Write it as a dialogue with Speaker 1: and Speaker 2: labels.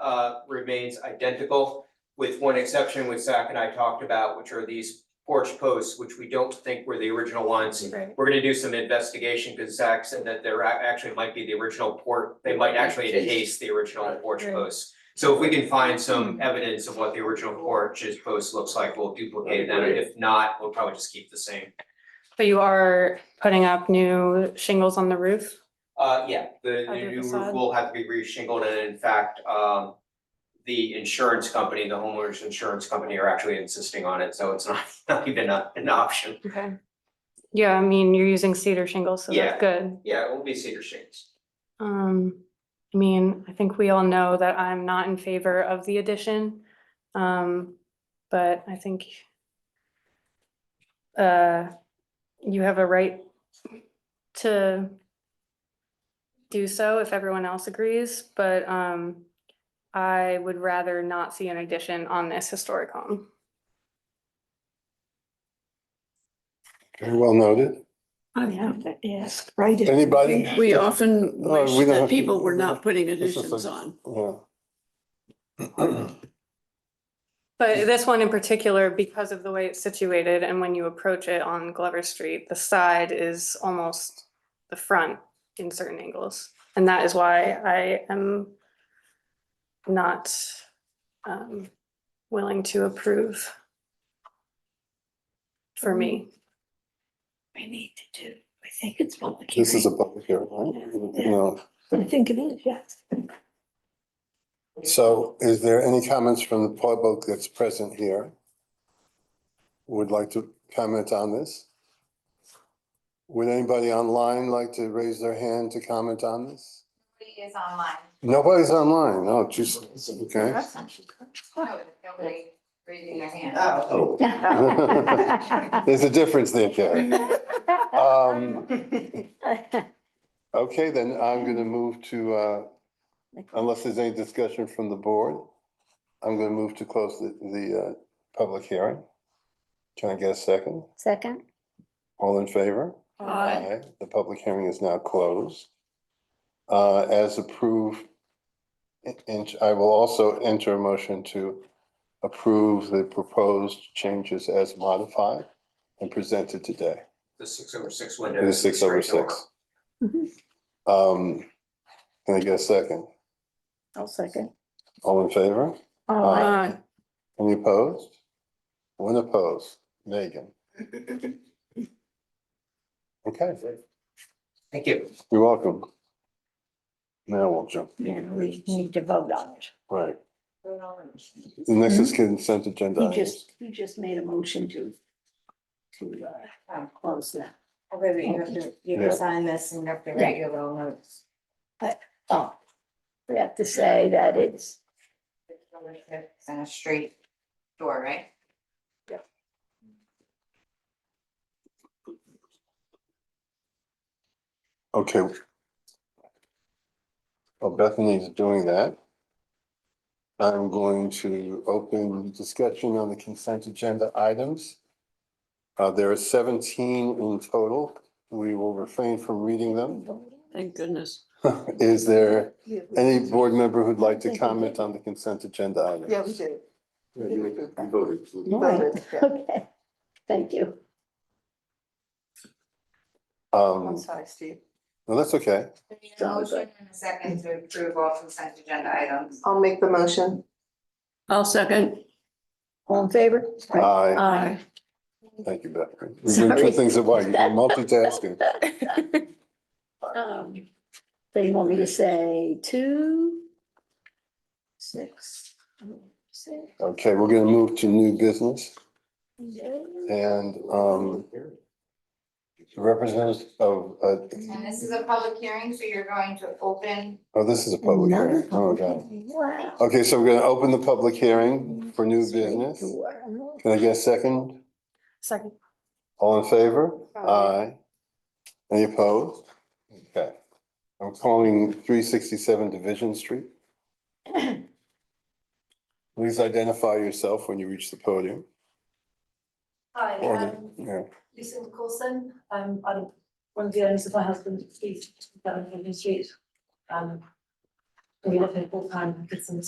Speaker 1: uh, remains identical with one exception, which Zach and I talked about, which are these porch posts, which we don't think were the original ones.
Speaker 2: Right.
Speaker 1: We're gonna do some investigation, because Zach said that there ac- actually might be the original port, they might actually encase the original porch
Speaker 2: Right.
Speaker 1: posts. So if we can find some evidence of what the original porch's post looks like, we'll duplicate that,
Speaker 3: That'd be
Speaker 1: if not, we'll probably just keep the same.
Speaker 2: But you are putting up new shingles on the roof?
Speaker 1: Uh, yeah, the
Speaker 2: Other
Speaker 1: the new roof
Speaker 2: facade?
Speaker 1: will have to be reshingled and in fact, um. The insurance company, the homeowners insurance company are actually insisting on it, so it's not not even a- an option.
Speaker 2: Okay. Yeah, I mean, you're using cedar shingles, so
Speaker 1: Yeah.
Speaker 2: that's good.
Speaker 1: Yeah, it will be cedar shades.
Speaker 2: Um, I mean, I think we all know that I'm not in favor of the addition. Um, but I think uh, you have a right to do so if everyone else agrees, but um, I would rather not see an addition on this historic home.
Speaker 4: Very well noted.
Speaker 5: I
Speaker 2: Yeah.
Speaker 5: would have to ask, right? if-
Speaker 4: Anybody?
Speaker 5: We often
Speaker 4: No, we
Speaker 5: wish
Speaker 4: don't have
Speaker 5: that
Speaker 4: to-
Speaker 5: people were not putting
Speaker 4: This is
Speaker 5: additions
Speaker 4: like-
Speaker 5: on.
Speaker 4: Yeah.
Speaker 2: But this one in particular, because of the way it's situated and when you approach it on Glover Street, the side is almost the front in certain angles. And that is why I am not um willing to approve for me.
Speaker 5: We need to do, I think it's public
Speaker 4: This is a
Speaker 5: hearing.
Speaker 4: public hearing, right?
Speaker 5: Yeah.
Speaker 4: No.
Speaker 5: I think it is, yes.
Speaker 4: So is there any comments from the public that's present here? Would like to comment on this? Would anybody online like to raise their hand to comment on this?
Speaker 6: Nobody is online.
Speaker 4: Nobody's online. Oh, just, okay.
Speaker 6: No, Nobody raising their hand.
Speaker 3: Oh.
Speaker 4: There's a difference there, Karen. Um, Okay, then I'm going to move to, uh, unless there's any discussion from the board, I'm going to move to close the, the uh, public hearing. Can I get a second?
Speaker 7: Second?
Speaker 4: All in favor?
Speaker 5: Aye.
Speaker 4: The public hearing is now closed. Uh, As approved, in- in- I will also enter a motion to approve the proposed changes as modified and presented today.
Speaker 1: The six over six window.
Speaker 4: It is six over
Speaker 1: straight door.
Speaker 4: six. Um, Can I get a second?
Speaker 7: I'll second.
Speaker 4: All in favor?
Speaker 5: Uh,
Speaker 7: Oh,
Speaker 4: Any opposed? One opposed. Megan? Okay,
Speaker 1: Thank you.
Speaker 4: you're welcome. Now we'll jump,
Speaker 5: Then we need to vote on it.
Speaker 4: right.
Speaker 5: Vote on it.
Speaker 4: The next is consent agenda.
Speaker 5: He
Speaker 4: items.
Speaker 5: just, he just made a motion to, to, uh, close that.
Speaker 6: Oh, wait, wait, you have to, you have to sign this and you have to write your little notes.
Speaker 5: Oh, we have to say that it's,
Speaker 6: And a straight door, right?
Speaker 4: Okay. Well, Bethany's doing that. I'm going to open discussion on the consent agenda items. Uh, there are seventeen in total. We will refrain from reading them.
Speaker 5: thank goodness.
Speaker 4: Is there
Speaker 5: Yeah,
Speaker 4: any board member who'd like to comment on the consent agenda items?
Speaker 8: Yeah, we did.
Speaker 3: You voted.
Speaker 5: All right. Okay, thank you.
Speaker 8: I'm
Speaker 4: Um,
Speaker 8: sorry, Steve.
Speaker 4: no, that's okay.
Speaker 6: We need a
Speaker 5: Sounds
Speaker 6: motion and a second to approve all consent agenda items.
Speaker 8: I'll make the motion.
Speaker 5: I'll second. All in favor?
Speaker 4: Aye,
Speaker 5: Aye.
Speaker 4: thank you, Bethany. You're doing two
Speaker 5: Sorry.
Speaker 4: things at once. You're multitasking.
Speaker 5: Um, So you want me to say two? Six. six,
Speaker 4: Okay, we're gonna move to new business
Speaker 5: eight,
Speaker 4: and, um, Representatives of, uh,
Speaker 6: And this is a public hearing, so you're going to open
Speaker 4: oh, this is a public hearing.
Speaker 5: another
Speaker 4: Oh,
Speaker 5: public
Speaker 4: God.
Speaker 5: hearing. Wow.
Speaker 4: Okay, so we're gonna open the public hearing for new business. Can I get a second?
Speaker 2: Second.
Speaker 4: All in favor?
Speaker 2: Aye.
Speaker 4: Aye. Any opposed? Okay. I'm calling three sixty-seven Division Street. Please identify yourself when you reach the podium.
Speaker 9: Hi,
Speaker 4: Or the-
Speaker 9: um,
Speaker 4: yeah.
Speaker 9: Lisa Nicholson, um, I'm one of the owners of my husband's street, down in Union Street. Um, we live in full time, did some